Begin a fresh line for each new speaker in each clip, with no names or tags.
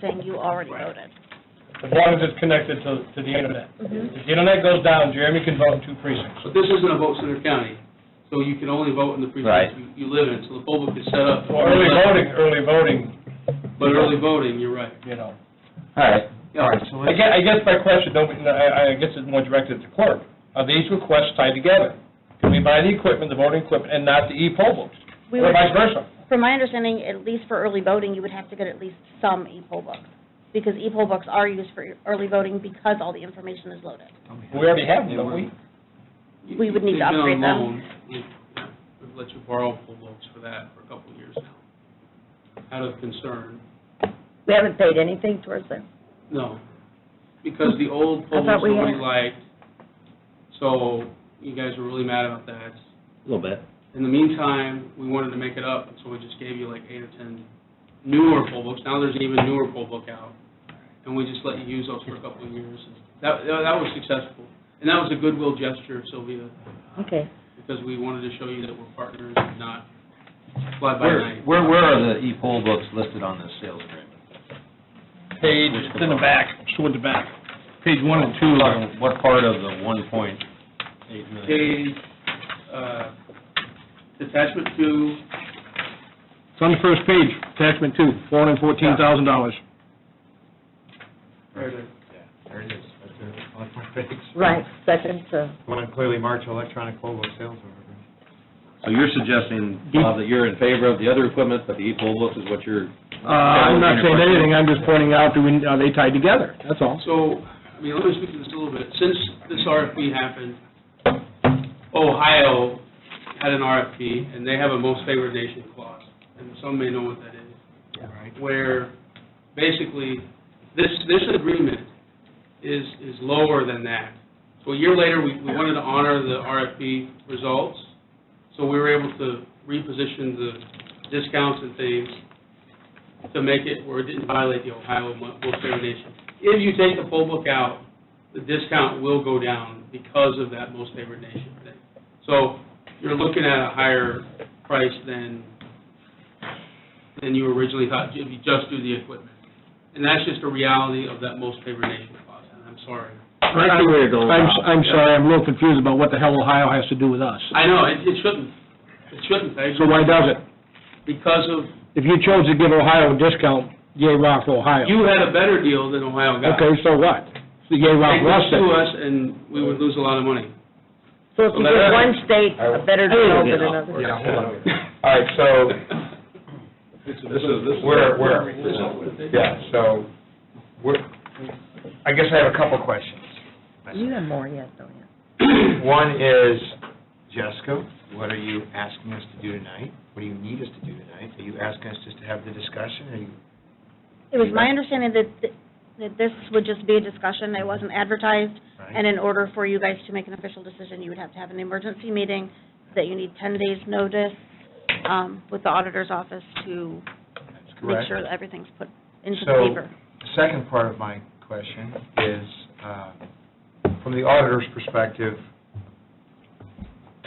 saying you already
Right.
voted.
As long as it's connected to, to the internet.
Mm-hmm.
If the internet goes down, Jeremy can vote in two precincts.
But this isn't a vote center county, so you can only vote in the
Right.
precinct you- you live in, so the poll book is set up.
Well, early voting, early voting,
But early voting, you're right.
you know.
All right.
Yeah, all right, so
I
let's-
guess, I guess my question, don't, I, I guess it's more directed at the clerk. Are these requests tied together? Can we buy the equipment, the voting equipment, and not the e-poll books?
We
Or
would-
vice versa?
From my understanding, at least for early voting, you would have to get at least some e-poll books, because e-poll books are used for early voting because all the information is loaded.
We already have them, don't we?
You-
We would need to
they've been on
upgrade them.
loan. We've we've let you borrow poll books for that for a couple of years now, out of concern.
We haven't paid anything towards them.
No, because the old
I
poll
thought
books
we
nobody
had-
liked, so you guys were really mad about that.
A little bit.
In the meantime, we wanted to make it up, so we just gave you like eight or 10 newer poll books. Now there's an even newer poll book out, and we just let you use those for a couple of years. That, that was successful, and that was a goodwill gesture, Sylvia,
Okay.
because we wanted to show you that we're partners and not fly by
Where,
night.
where where are the e-poll books listed on this sales agreement?
Page, it's in the back, toward the back.
Page one and two. What part of the one point eight million?
Page, uh, attachment two,
It's on the first page, attachment two, four hundred and fourteen thousand dollars.
there it is.
There it is, right there, on my page.
Right, second, uh,
Want to clearly march electronic poll book sales order.
So you're suggesting, Bob, that you're in favor of the other equipment, but the e-poll books is what you're...
Uh, I'm not saying anything, I'm just pointing out, do we, are they tied together? That's all.
So, I mean, let me speak to this a little bit. Since this RFP happened, Ohio had an RFP, and they have a most favored nation clause, and some may know what that is. Where basically, this, this agreement is, is lower than that. So a year later, we, we wanted to honor the RFP results, so we were able to reposition the discounts and things to make it where it didn't violate the Ohio Mo- most favored nation. If you take the poll book out, the discount will go down because of that most favored nation thing. So you're looking at a higher price than, than you originally thought, if you just do the equipment. And that's just a reality of that most favored nation clause, and I'm sorry.
I see where you're going,
I'm,
Bob.
I'm sorry, I'm a little confused about what the hell Ohio has to do with us.
I know, it, it shouldn't, it shouldn't, I
So
agree.
why does it?
Because of,
If you chose to give Ohio a discount, yay, rock for Ohio.
you had a better deal than Ohio got.
Okay, so what? So Yay, rock
Take
for us
this
then.
to
uh,
us, and we would lose a lot of money.
so if you
Well, that-
give one state a better deal than another.
Yeah, hold on.
All right, so, this is, this is, where, where, yeah, so, we're, I guess I have a couple questions.
You have more yet, don't you?
One is, Jessica, what are you asking us to do tonight? What do you need us to do tonight? Are you asking us just to have the discussion, or you,
It was my understanding that, th- that this would just be a discussion, it wasn't advertised, and
right?
in order for you guys to make an official decision, you would have to have an emergency meeting, that you need ten days' notice, um, with the auditor's office to
That's
make
correct.
sure that everything's put into the
So-
paper.
The second part of my question is, uh, from the auditor's perspective,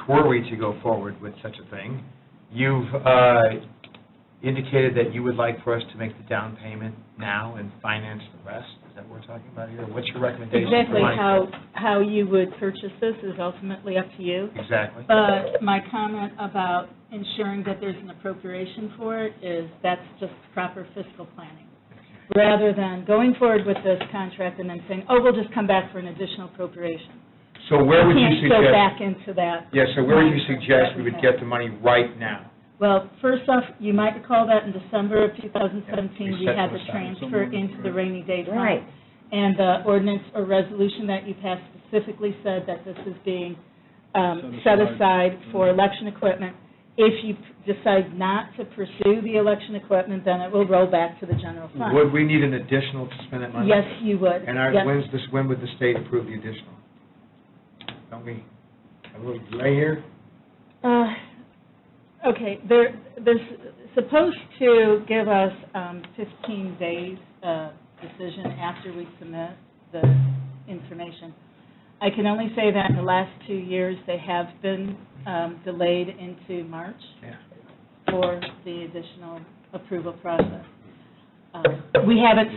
were we to go forward with such a thing, you've uh, indicated that you would like for us to make the down payment now and finance the rest? Is that what we're talking about here? What's your recommendation? for
Exactly
my-
how, how you would purchase this is ultimately up to you.
Exactly.
But my comment about ensuring that there's an appropriation for it is that's just proper fiscal planning. Rather than going forward with this contract and then saying, oh, we'll just come back for an additional appropriation.
So where would you
Can't go
suggest,
back into that.
yeah, so where would you suggest we would get the money right now?
Well, first off, you might recall that in December of 2017, we
set
had
it
the
aside
transfer into the rainy day fund.
Right.
And the ordinance or resolution that you passed specifically said that this is being um, set aside for
Mm-hmm.
election equipment. If you p- decide not to pursue the election equipment, then it will roll back to the general fund.
Would we need an additional to spend that money?
Yes, you would.
And our,
Yes.
when's this, when would the state approve the additional? Don't we, have a little delay here?
Uh, Okay, they're, they're supposed to give us um, 15 days uh, decision after we submit the information. I can only say that in the last two years, they have been um, delayed into March
Yeah.
for the additional approval process. Um, We haven't